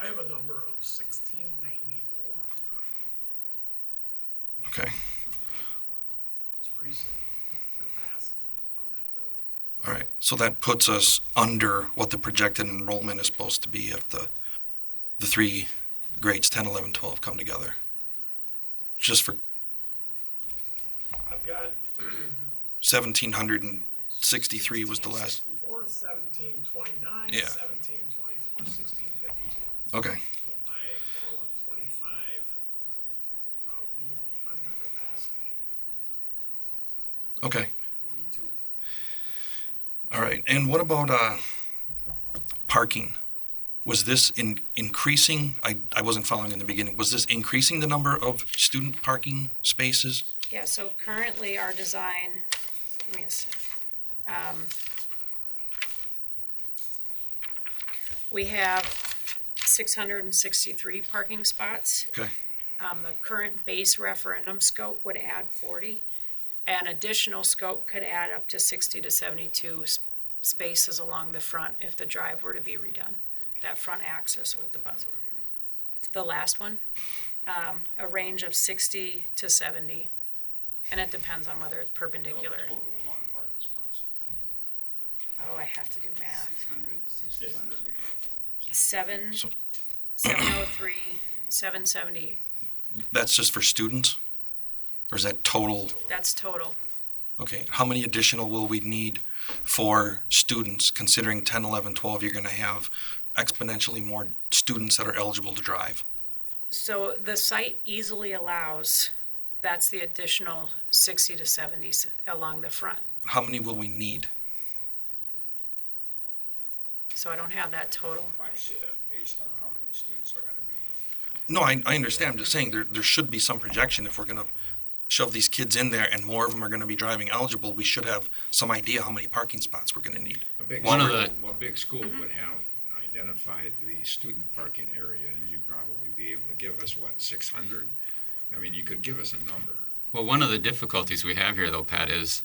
I have a number of sixteen ninety-four. Okay. It's recent capacity of that building. All right. So that puts us under what the projected enrollment is supposed to be if the, the three grades 10, 11, 12 come together. Just for I've got 1,763 was the last. 1664, 1729, Yeah. 1724, 1652. Okay. So by fall of twenty-five, uh, we will be under capacity Okay. by forty-two. All right. And what about uh, parking? Was this in increasing? I, I wasn't following in the beginning. Was this increasing the number of student parking spaces? Yeah, so currently our design, give me a sec. um, We have six hundred and sixty-three parking spots. Okay. Um, the current base referendum scope would add forty. An additional scope could add up to sixty to seventy-two s- spaces along the front if the drive were to be redone. That front axis with the bus. The last one, um, a range of sixty to seventy. And it depends on whether it's perpendicular. Oh, I have to do math. Seven, So- seven oh three, seven seventy, That's just for students? Or is that total? that's total. Okay, how many additional will we need for students, considering 10, 11, 12, you're going to have exponentially more students that are eligible to drive? So the site easily allows, that's the additional sixty to seventies along the front. How many will we need? So I don't have that total. based on how many students are gonna be. No, I, I understand, I'm just saying, there, there should be some projection if we're going to shove these kids in there and more of them are going to be driving eligible, we should have some idea how many parking spots we're going to need. One of the- A big school would have identified the student parking area, and you'd probably be able to give us, what, six hundred? I mean, you could give us a number. Well, one of the difficulties we have here, though, Pat, is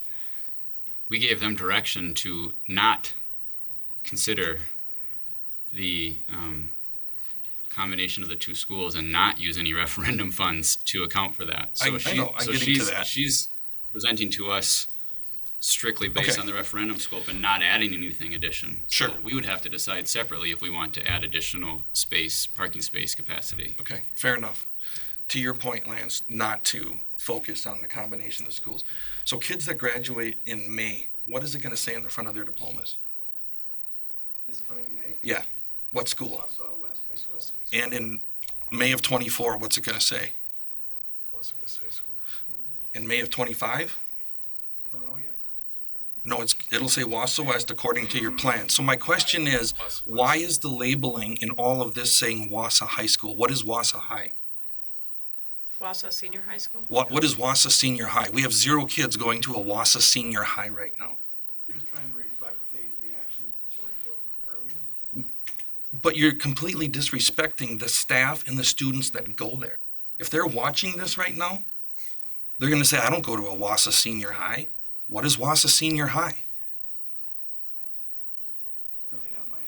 we gave them direction to not consider the um, combination of the two schools and not use any referendum funds to account for that. I- I know, I'm so getting to she's, that. she's presenting to us strictly based Okay. on the referendum scope and not adding anything addition. Sure. So we would have to decide separately if we want to add additional space, parking space capacity. Okay, fair enough. To your point, Lance, not to focus on the combination of schools. So kids that graduate in May, what is it going to say on the front of their diplomas? This coming May, Yeah, what school? also West High School. And in May of twenty-four, what's it gonna say? In May of twenty-five? Don't know yet. No, it's, it'll say Wausau West according to your plan. So my question is, why is the labeling in all of this saying Wausau High School? What is Wausau High? Wausau Senior High School? What, what is Wausau Senior High? We have zero kids going to a Wausau Senior High right now. We're just trying to reflect the, the action board took earlier. But you're completely disrespecting the staff and the students that go there. If they're watching this right now, they're gonna say, I don't go to a Wausau Senior High. What is Wausau Senior High? Certainly not my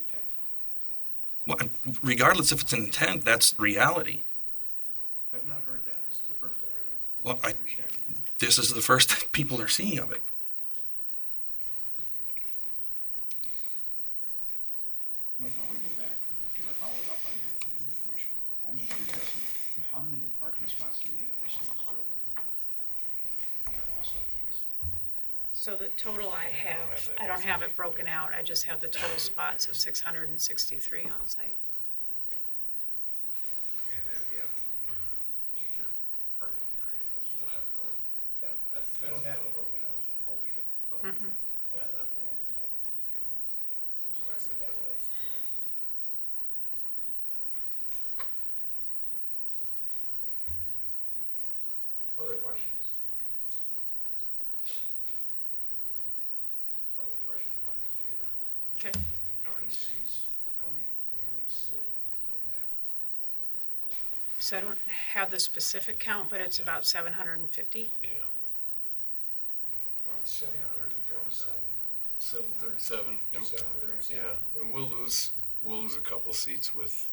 intent. Well, regardless if it's an intent, that's reality. I've not heard that. This is the first I heard of it. Well, I, Thank you for sharing. this is the first that people are seeing of it. I want to go back, because I followed up on your question. I'm interested, in how many parking spots do we have for students right now? At Wausau West? So the total I have, I don't have it broken out, I just have the total spots of six hundred and sixty-three on site. And then we have uh, teacher parking area as well. Yeah, I don't have it broken out yet. Mm-mm. Not- not gonna, uh, Other questions? Couple of questions about the theater. Okay, How many seats, how many will we sit in that? so I don't have the specific count, but it's about seven hundred and fifty? Seven thirty-seven. Yeah, and we'll lose, we'll lose a couple seats with